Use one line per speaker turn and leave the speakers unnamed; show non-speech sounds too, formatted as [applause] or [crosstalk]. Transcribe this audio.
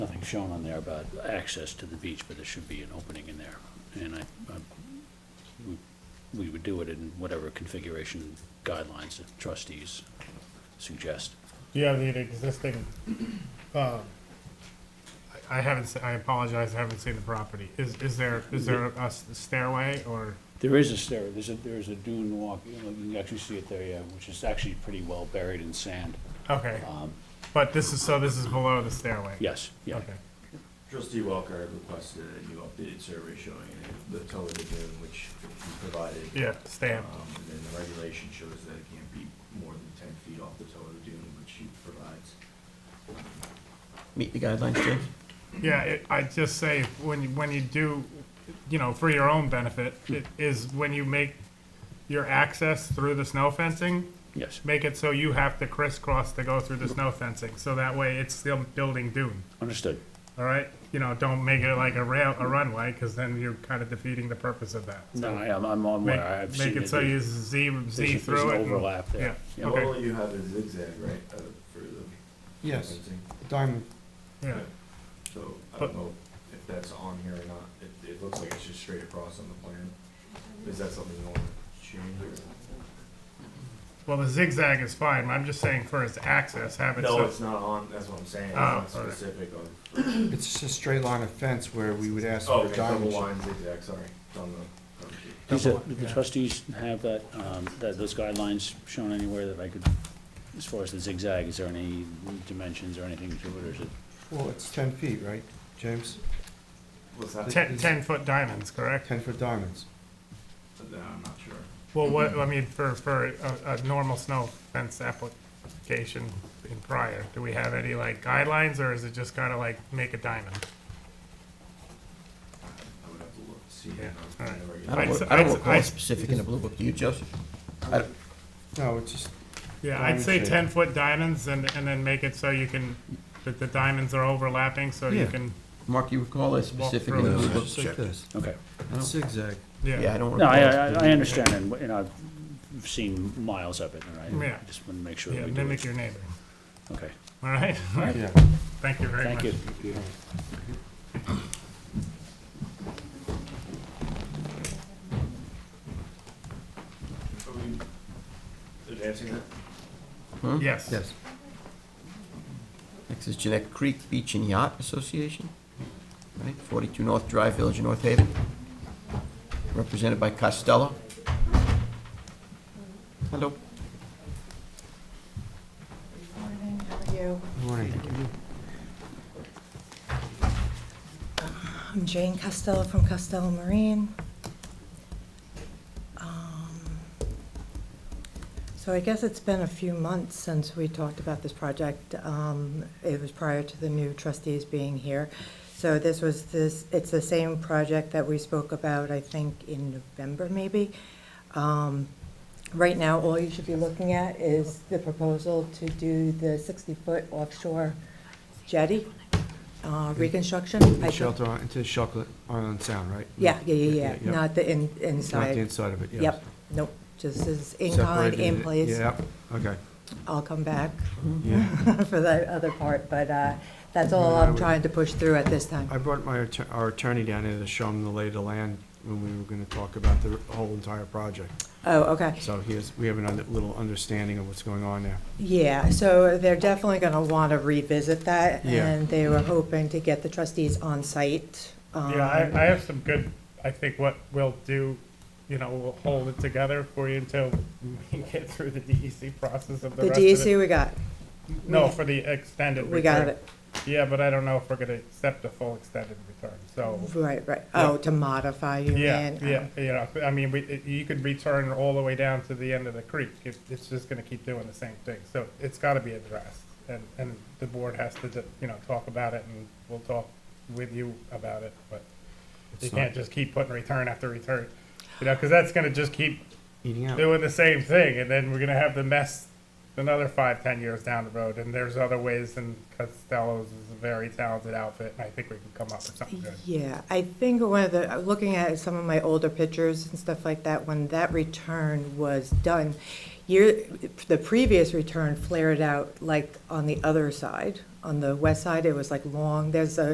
shown on there about access to the beach, but there should be an opening in there. And I, I- we- we would do it in whatever configuration guidelines the trustees suggest.
Do you have the existing, um, I I haven't, se- I apologize, I haven't seen the property. Is, is there, is there a s- stairway or,
There is a stair, there's a, there is a dune walk, you know, you can actually see it there, yeah, which is actually pretty well buried in sand.
okay,
Um,
but this is, so this is below the stairway?
Yes, yeah.
Okay,
Trustee Walker had requested a new updated survey showing the color of the dune, which he provided.
yeah, stamp,
Um, And then the regulation shows that it can't be more than ten feet off the toe of the dune, which he provides.
meet the guidelines, Jim?
yeah, it- I just say, when you, when you do, you know, for your own benefit, it is when you make your access through the snow fencing,
Yes,
make it so you have to crisscross to go through the snow fencing, so that way it's still building dune.
understood.
All right, you know, don't make it like a rail, a runway, because then you're kind of defeating the purpose of that.
No, I am, I'm on
Make,
where I've seen
make
it.
it so you z
There's a-
z
there's
through
an
it. and-
overlap there.
Yeah.
Yeah.
Okay.
All you have is zigzag, right, uh, for the
Yes,
fencing?
diamond.
Yeah,
So I
But-
don't know if that's on here or not. It, it looks like it's just straight across on the plan. Is that something you want to change or?
well, the zigzag is fine, I'm just saying for its access, have it
No,
so,
it's not on, that's what I'm saying. It's
Oh,
not
all right.
specific on,
It's just a straight line of fence where we would ask
oh,
for a
okay, double
diamond.
line zigzag, sorry, it's on the cover sheet.
Does
Double
the
line,
the
yeah.
trustees have that, um, that, those guidelines shown anywhere that I could, as far as the zigzag, is there any dimensions or anything to it, or is it?
Well, it's ten feet, right, James?
What's that?
ten, ten-foot diamonds, correct?
Ten foot diamonds.
No, uh, I'm not sure.
Well, what, I mean, for, for a, a normal snow fence application in prior, do we have any like guidelines, or is it just kind of like make a diamond?
I would have to look, see.
Yeah,
I
all right.
don't know.
I
I'd s-
don't,
I'd
I
s-
don't recall
I'd-
specific in the blue book, do you, Joseph? No, it's just,
Yeah, I'd
Diamond
say
shape.
ten foot diamonds and, and then make it so you can, that the diamonds are overlapping, so you
Yeah.
can,
Mark, you recall a specific in the
through
blue
it.
book? Just like this.
Okay.
Oh. Zigzag. Yeah, I
yeah.
don't
No,
recall.
I,
a
I, I
specific-
understand, and, and I've seen miles of it, and I
Yeah.
just want to make sure
Yeah,
that we do
mimic
it.
your neighbor, [laughs]
Okay,
all right? [laughs]
Yeah.
Thank you very
thank
much.
you.
Are we advancing that?
Hmm?
Yes.
Yes. Next is Jeanette Creek Beach and Yacht Association, right, 42 North Drive, Village of North Haven, represented by Costello. Hello.
Morning, how are you? I'm Jane Costello from Costello Marine. Um, So I guess it's been a few months since we talked about this project. Um, It was prior to the new trustees being here. So this was this, it's the same project that we spoke about, I think, in November, maybe. Um, Right now, all you should be looking at is the proposal to do the 60-foot offshore jetty uh, reconstruction. I think-
Shelter on, into Chocolate Island Sound, right?
Yeah, yeah, yeah, yeah,
yeah.
not the in-
Not the
inside.
inside of it, yes.
Yep, nope, just as in kind,
Separated
in
it,
place.
Yeah, okay.
I'll come back
Yeah.
[laughs] for the other part, but uh, that's all
Yeah, I
I'm
would-
trying to push through at this time.
I brought my, atter- our attorney down here to show him the lay of the land when we were gonna talk about the whole entire project.
Oh, okay.
So he has, we have a little understanding of what's going on there.
Yeah, so they're definitely going to want to revisit that,
Yeah.
and they were hoping to get the trustees on site. um,
Yeah, I, I have some good, I think what we'll do, you know, we'll hold it together for you until [laughs] we get through the DEC process of the
The
rest of it.
DEC we got,
No, for the extended return.
we got it.
Yeah, but I don't know if we're gonna accept the full extended return, so,
Right, right. Oh, to modify, you mean?
yeah, yeah,
um,
you know, I mean, we, it- you could return all the way down to the end of the creek. It- It's just gonna keep doing the same thing, so it's gotta be addressed. And, and the board has to, you know, talk about it, and we'll talk with you about it, but You
It's
can't
not
just keep putting return after return, you know, because that's going to just keep
eating out.
doing the same thing, and then we're going to have the mess another five, ten years down the road. And there's other ways, and Costello's is a very talented outfit, and I think we can come up with something good.
Yeah, I think one of the, uh, looking at some of my older pictures and stuff like that, when that return was done, year, the previous return flared out like on the other side, on the west side, it was like long, there's a